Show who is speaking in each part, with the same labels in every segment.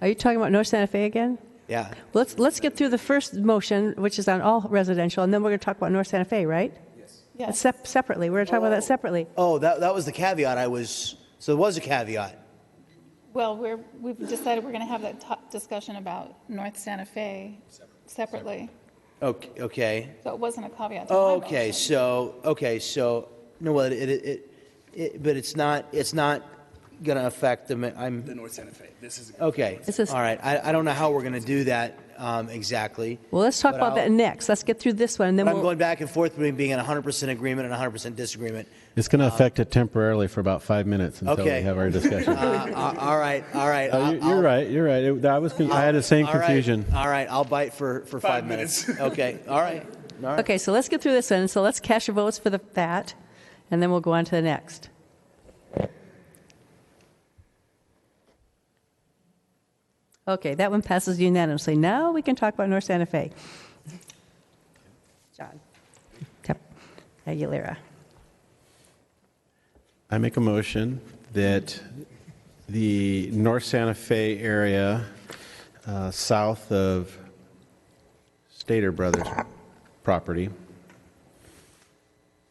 Speaker 1: Are you talking about North Santa Fe again?
Speaker 2: Yeah.
Speaker 1: Let's, let's get through the first motion, which is on all residential, and then we're going to talk about North Santa Fe, right? Yes. Sep- separately, we're going to talk about that separately.
Speaker 2: Oh, that, that was the caveat I was, so there was a caveat.
Speaker 3: Well, we're, we've decided we're going to have that to- discussion about North Santa Fe separately.
Speaker 2: Okay, okay.
Speaker 3: So it wasn't a caveat to my motion.
Speaker 2: Okay, so, okay, so, no, well, it, it, it- it, but it's not, it's not gonna affect the, ma- I'm,
Speaker 4: North Santa Fe. This is
Speaker 2: okay.
Speaker 1: This is-
Speaker 2: All right, I, I don't know how we're gonna do that, um, exactly.
Speaker 1: Well, let's talk
Speaker 2: But
Speaker 1: about
Speaker 2: I'll-
Speaker 1: that next. Let's get through this one, and then
Speaker 2: I'm
Speaker 1: we'll,
Speaker 2: going back and forth between being in hundred percent agreement and hundred percent disagreement.
Speaker 5: It's going to affect it temporarily for about five minutes until
Speaker 2: Um, Okay.
Speaker 5: we have our discussion.
Speaker 2: Uh, uh, all right, all right.
Speaker 5: Oh,
Speaker 2: I'll-
Speaker 5: you- you're
Speaker 2: I'll-
Speaker 5: right. You're right. It, I was. Con- I had the same
Speaker 2: All right,
Speaker 5: confusion.
Speaker 2: All right, I'll bite for, for
Speaker 4: Five
Speaker 2: five minutes.
Speaker 4: minutes.
Speaker 2: Okay, all right. All right.
Speaker 1: okay, so let's get through this one. So let's cash your votes for the, that, and then we'll go on to the next. Okay, that one passes unanimously. Now we can talk about North Santa Fe. John. Yep. Aguilera.
Speaker 5: I make a motion that the North Santa Fe area, uh, south of Stater Brothers property,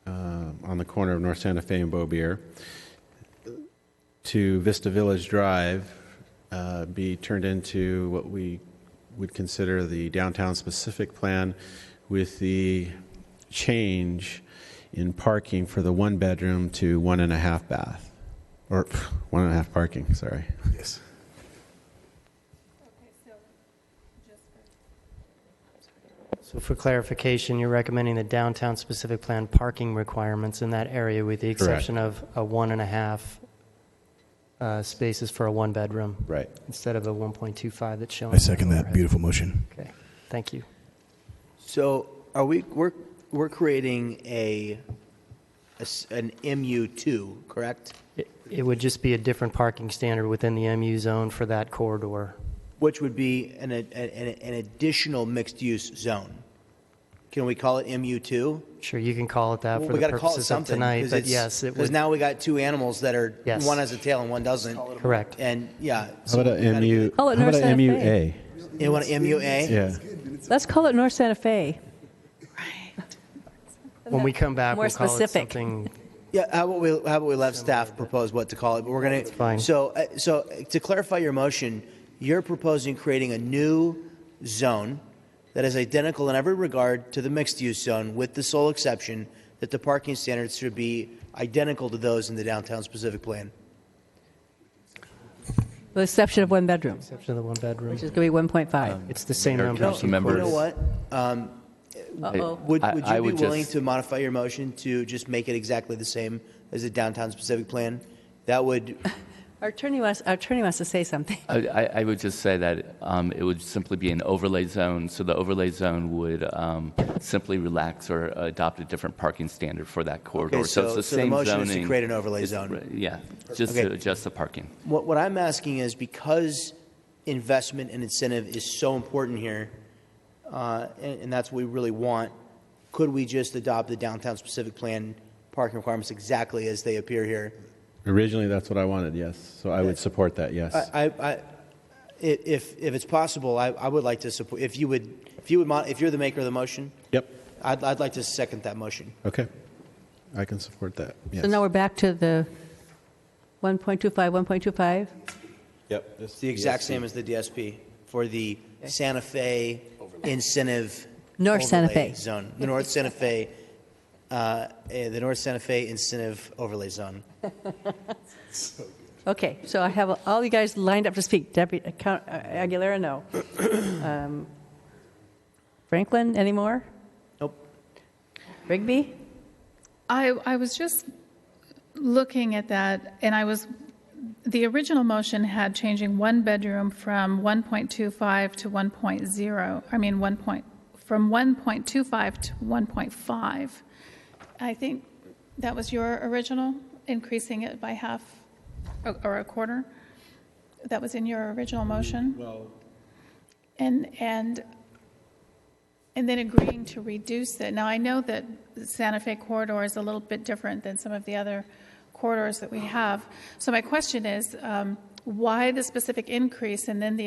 Speaker 5: uh, on the corner of North Santa Fe and Bobier, to Vista Village Drive, uh, be turned into what we would consider the downtown-specific plan with the change in parking for the one-bedroom to one-and-a-half bath, or one-and-a-half parking, sorry.
Speaker 4: Yes.
Speaker 6: So for clarification, you're recommending the downtown specific plan parking requirements in that area with the
Speaker 5: Correct.
Speaker 6: exception of a one and a half uh, spaces for a one-bedroom?
Speaker 5: Right.
Speaker 6: Instead of the 1.25 that's shown?
Speaker 4: I second
Speaker 6: on the
Speaker 4: that.
Speaker 6: overhead.
Speaker 4: Beautiful motion.
Speaker 6: Okay, thank you.
Speaker 2: So are we, we're, we're creating a, a s- an MU2, correct?
Speaker 6: It- It would just be a different parking standard within the MU zone for that corridor.
Speaker 2: Which would be an, a- an, an additional mixed-use zone. Can we call it MU2?
Speaker 6: Sure, you can call it that Uh, for
Speaker 2: We
Speaker 6: the
Speaker 2: gotta call it
Speaker 6: purposes of
Speaker 2: something.
Speaker 6: tonight, but yes, it
Speaker 2: Because
Speaker 6: would,
Speaker 2: now we got two animals that are,
Speaker 6: Yes.
Speaker 2: one has a tail and one doesn't.
Speaker 6: correct.
Speaker 2: And, yeah.
Speaker 5: How
Speaker 2: so
Speaker 5: about
Speaker 2: we
Speaker 5: a
Speaker 2: gotta-
Speaker 5: MU?
Speaker 1: Oh, at
Speaker 5: how about
Speaker 1: North
Speaker 5: a
Speaker 1: Santa Fe.
Speaker 5: MUA?
Speaker 2: You want an MUA?
Speaker 5: Yeah.
Speaker 1: Let's call it North Santa Fe.
Speaker 6: When we come back,
Speaker 1: More
Speaker 6: we'll call it
Speaker 1: specific.
Speaker 6: something
Speaker 2: Yeah, how about we, how about we let staff propose what to call it, but we're gonna.
Speaker 6: fine.
Speaker 2: So, uh, so uh, to clarify your motion, you're proposing creating a new zone that is identical in every regard to the mixed-use zone, with the sole exception that the parking standards should be identical to those in the downtown specific plan.
Speaker 1: With the exception of one bedroom, which
Speaker 6: exception of the one-bedroom.
Speaker 1: is going to be 1.5.
Speaker 6: It's the same number.
Speaker 7: Council
Speaker 2: You
Speaker 7: members.
Speaker 2: know what?
Speaker 1: Uh-oh.
Speaker 2: Would,
Speaker 7: I-
Speaker 2: would
Speaker 7: I
Speaker 2: you be
Speaker 7: would
Speaker 2: willing
Speaker 7: just-
Speaker 2: to modify your motion to just make it exactly the same as the downtown specific plan? That would,
Speaker 1: Our attorney wants, our attorney wants to say something.
Speaker 7: I, I I would just say that um, it would simply be an overlay zone, so the overlay zone would um, simply relax or adopt a different parking standard for that corridor.
Speaker 2: so-
Speaker 7: it's the
Speaker 2: so the
Speaker 7: same
Speaker 2: motion is
Speaker 7: zoning.
Speaker 2: to create an overlay
Speaker 7: It's-
Speaker 2: zone.
Speaker 7: Yeah, just
Speaker 2: Okay.
Speaker 7: to adjust the parking.
Speaker 2: What, what I'm asking is because investment and incentive is so important here, uh, and, and that's what we really want, could we just adopt the downtown specific plan parking requirements exactly as they appear here?
Speaker 5: Originally, that's what I wanted, yes. So I would support that, yes.
Speaker 2: I, I, I- i- if, if it's possible, I, I would like to support, if you would, if you would, mo- if you're the maker of the motion,
Speaker 5: Yep,
Speaker 2: I'd, I'd like to second that motion.
Speaker 5: okay. I can support that, yes.
Speaker 1: So now we're back to the 1.25, 1.25?
Speaker 5: Yep.
Speaker 2: It's the exact same as the DSP for the Santa Fe incentive.
Speaker 1: North Santa
Speaker 2: overlay
Speaker 1: Fe.
Speaker 2: Zone, the North Santa Fe, uh, eh, the North Santa Fe incentive overlay zone.
Speaker 1: Okay, so I have all you guys lined up to speak. Deputy, Count- uh, Aguilera, no. Um, Franklin, any more?
Speaker 2: Nope.
Speaker 1: Rigby?
Speaker 3: I, I was just looking at that, and I was, the original motion had changing one bedroom from 1.25 to 1.0, I mean, 1 point, from 1.25 to 1.5. I think that was your original, increasing it by half or- or a quarter? That was in your original motion? Well. And, and and then agreeing to reduce it. Now, I know that the Santa Fe corridor is a little bit different than some of the other corridors that we have. So my question is, um, why the specific increase and then the